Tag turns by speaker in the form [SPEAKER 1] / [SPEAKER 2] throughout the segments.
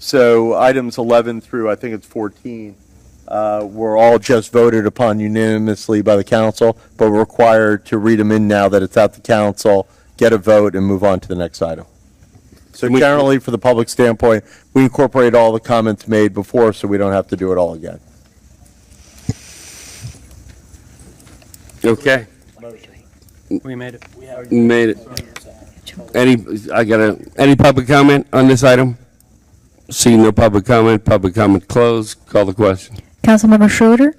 [SPEAKER 1] So items 11 through, I think it's 14, uh, were all just voted upon unanimously by the council, but we're required to read them in now that it's at the council, get a vote, and move on to the next item. So generally, for the public standpoint, we incorporate all the comments made before, so we don't have to do it all again.
[SPEAKER 2] Okay,
[SPEAKER 3] We made it.
[SPEAKER 2] made it. Any, I got a, any public comment on this item? See no public comment, public comment closed, call the question.
[SPEAKER 4] Councilmember Schroeder,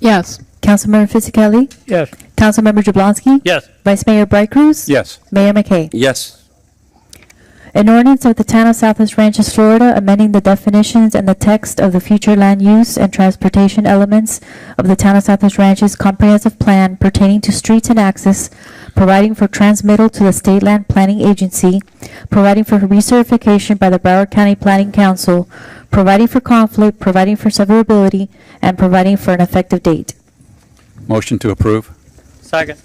[SPEAKER 5] Yes.
[SPEAKER 4] Councilmember Fisickelli,
[SPEAKER 3] Yes.
[SPEAKER 4] Councilmember Jablonski,
[SPEAKER 3] Yes.
[SPEAKER 4] Vice Mayor Bright Cruz,
[SPEAKER 1] Yes.
[SPEAKER 4] Mayor McKay.
[SPEAKER 2] Yes.
[SPEAKER 4] An ordinance of the Town of Southwest Ranches, Florida, amending the definitions and the text of the future land use and transportation elements of the Town of Southwest Ranches Comprehensive Plan pertaining to streets and access, providing for transmittal to the State Land Planning Agency, providing for recertification by the Broward County Planning Council, providing for conflict, providing for severability, and providing for an effective date.
[SPEAKER 6] Motion to approve?
[SPEAKER 3] Second.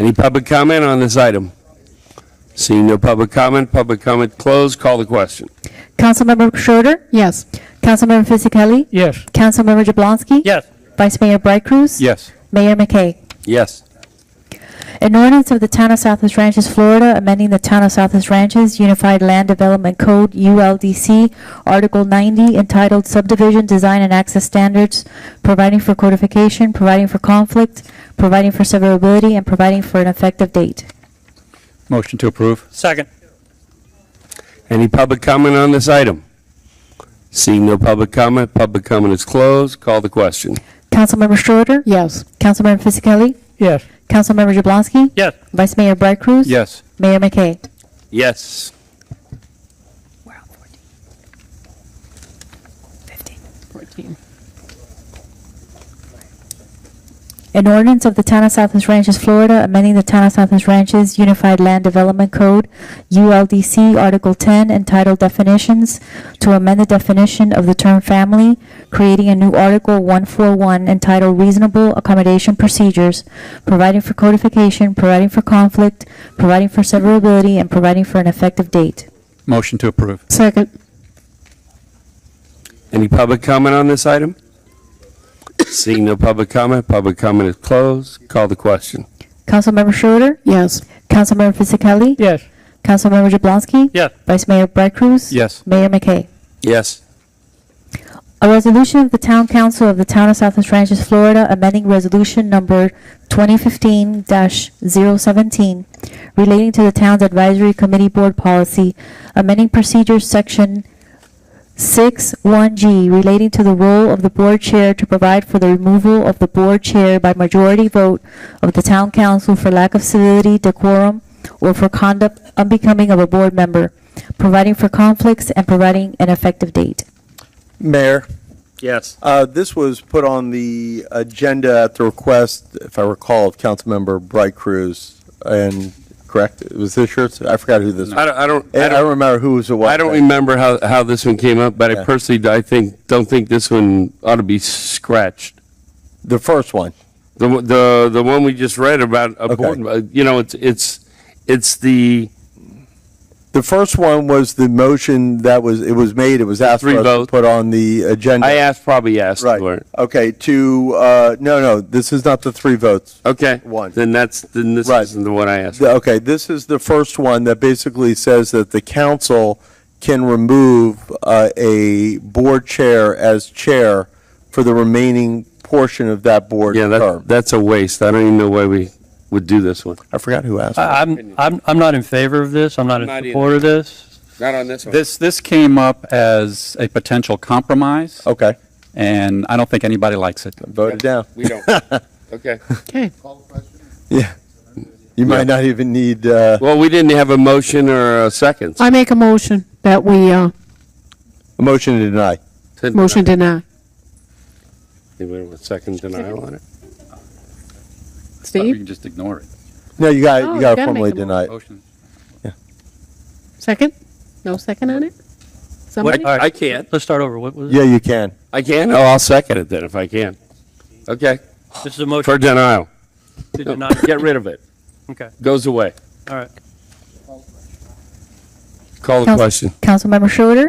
[SPEAKER 2] Any public comment on this item? Seeing no public comment, public comment closed, call the question.
[SPEAKER 4] Councilmember Schroeder,
[SPEAKER 5] Yes.
[SPEAKER 4] Councilmember Fisickelli,
[SPEAKER 3] Yes.
[SPEAKER 4] Councilmember Jablonski,
[SPEAKER 3] Yes.
[SPEAKER 4] Vice Mayor Bright Cruz,
[SPEAKER 6] Yes.
[SPEAKER 4] Mayor McKay.
[SPEAKER 2] Yes.
[SPEAKER 4] An ordinance of the Town of Southwest Ranches, Florida, amending the Town of Southwest Ranches Unified Land Development Code, ULDC, Article 90, entitled Subdivision Design and Access Standards, providing for codification, providing for conflict, providing for severability, and providing for an effective date.
[SPEAKER 6] Motion to approve?
[SPEAKER 3] Second.
[SPEAKER 2] Any public comment on this item? Seeing no public comment, public comment is closed, call the question.
[SPEAKER 4] Councilmember Schroeder,
[SPEAKER 5] Yes.
[SPEAKER 4] Councilmember Fisickelli,
[SPEAKER 3] Yes.
[SPEAKER 4] Councilmember Jablonski,
[SPEAKER 3] Yes.
[SPEAKER 4] Vice Mayor Bright Cruz,
[SPEAKER 6] Yes.
[SPEAKER 4] Mayor McKay.
[SPEAKER 2] Yes.
[SPEAKER 5] We're on 14. 15. 14.
[SPEAKER 4] An ordinance of the Town of Southwest Ranches, Florida, amending the Town of Southwest Ranches Unified Land Development Code, ULDC, Article 10, entitled Definitions, to amend the definition of the term family, creating a new Article 141 entitled Reasonable Accommodation Procedures, providing for codification, providing for conflict, providing for severability, and providing for an effective date.
[SPEAKER 6] Motion to approve?
[SPEAKER 5] Second.
[SPEAKER 2] Any public comment on this item? Seeing no public comment, public comment is closed. Call the question.
[SPEAKER 4] Councilmember Schroeder,
[SPEAKER 5] Yes.
[SPEAKER 4] Councilmember Fisickelli,
[SPEAKER 3] Yes.
[SPEAKER 4] Councilmember Jablonski,
[SPEAKER 3] Yes.
[SPEAKER 4] Vice Mayor Bright Cruz,
[SPEAKER 6] Yes.
[SPEAKER 4] Mayor McKay.
[SPEAKER 2] Yes.
[SPEAKER 4] A resolution of the Town Council of the Town of Southwest Ranches, Florida, amending Resolution Number 2015-017 relating to the Town's Advisory Committee Board Policy, amending Procedures Section 6-1G relating to the role of the Board Chair to provide for the removal of the Board Chair by majority vote of the Town Council for lack of civility, decorum, or for conduct unbecoming of a board member, providing for conflicts and providing an effective date.
[SPEAKER 1] Mayor?
[SPEAKER 2] Yes.
[SPEAKER 1] Uh, This was put on the agenda at the request, if I recall, of Councilmember Bright Cruz, and, correct, It was this yours? I forgot who this,
[SPEAKER 2] I
[SPEAKER 1] I
[SPEAKER 2] don't, I don't, I
[SPEAKER 1] Eh, I
[SPEAKER 2] don't,
[SPEAKER 1] don't remember who was it. was.
[SPEAKER 2] I don't remember how, how this one came up, but
[SPEAKER 1] Yeah.
[SPEAKER 2] I personally, I think, don't think this one ought to be scratched.
[SPEAKER 1] The first one.
[SPEAKER 2] The, one- the, the one we just read about a
[SPEAKER 1] Okay.
[SPEAKER 2] board, uh, you know, it's, it's, it's the
[SPEAKER 1] The first one was the motion that was, it was made, it was asked for
[SPEAKER 2] Three
[SPEAKER 1] us to
[SPEAKER 2] votes.
[SPEAKER 1] put on the agenda.
[SPEAKER 2] I asked, probably asked for
[SPEAKER 1] Right,
[SPEAKER 2] it.
[SPEAKER 1] okay, to, uh, no, no, this is not the three votes.
[SPEAKER 2] Okay.
[SPEAKER 1] One.
[SPEAKER 2] Then that's, then this
[SPEAKER 1] Right.
[SPEAKER 2] isn't the one I
[SPEAKER 1] The-
[SPEAKER 2] asked. for.
[SPEAKER 1] Okay, this is the first one that basically says that the council can remove uh, a board chair as chair for the remaining portion of that board
[SPEAKER 2] Yeah, that,
[SPEAKER 1] term.
[SPEAKER 2] that's a waste. I don't even know why we would do this one.
[SPEAKER 1] I forgot who asked.
[SPEAKER 3] I- I'm, I'm, I'm not in favor of this. I'm not
[SPEAKER 2] Not
[SPEAKER 3] in
[SPEAKER 2] either.
[SPEAKER 3] support of this.
[SPEAKER 2] Not on this
[SPEAKER 6] This, this came up as a potential compromise,
[SPEAKER 1] Okay,
[SPEAKER 6] and I don't think anybody likes it.
[SPEAKER 1] voted down.
[SPEAKER 2] We don't. Okay.
[SPEAKER 5] Okay.
[SPEAKER 1] Yeah. You might not even need, uh,
[SPEAKER 2] Well, we didn't have a motion or a second.
[SPEAKER 5] I make a motion that we, uh,
[SPEAKER 1] a motion to deny.
[SPEAKER 5] motion deny.
[SPEAKER 2] Anybody with second denial on it?
[SPEAKER 6] You
[SPEAKER 5] Steve,
[SPEAKER 6] can just ignore it.
[SPEAKER 1] No, you
[SPEAKER 5] Oh,
[SPEAKER 1] got, you
[SPEAKER 5] you
[SPEAKER 1] got to
[SPEAKER 5] gotta make
[SPEAKER 1] formally
[SPEAKER 5] the
[SPEAKER 1] deny it.
[SPEAKER 6] Motion.
[SPEAKER 5] second? No second on it? Somebody?
[SPEAKER 2] I can't.
[SPEAKER 3] Let's start over. What was it?
[SPEAKER 1] Yeah, you can.
[SPEAKER 2] I can? Oh, I'll second it then if I can. Okay,
[SPEAKER 3] This is a motion
[SPEAKER 2] for denial.
[SPEAKER 3] to deny.
[SPEAKER 2] Get rid of it.
[SPEAKER 3] Okay,
[SPEAKER 2] Goes away.
[SPEAKER 3] all right.
[SPEAKER 2] Call the
[SPEAKER 4] Council-
[SPEAKER 2] question.
[SPEAKER 4] Councilmember Schroeder.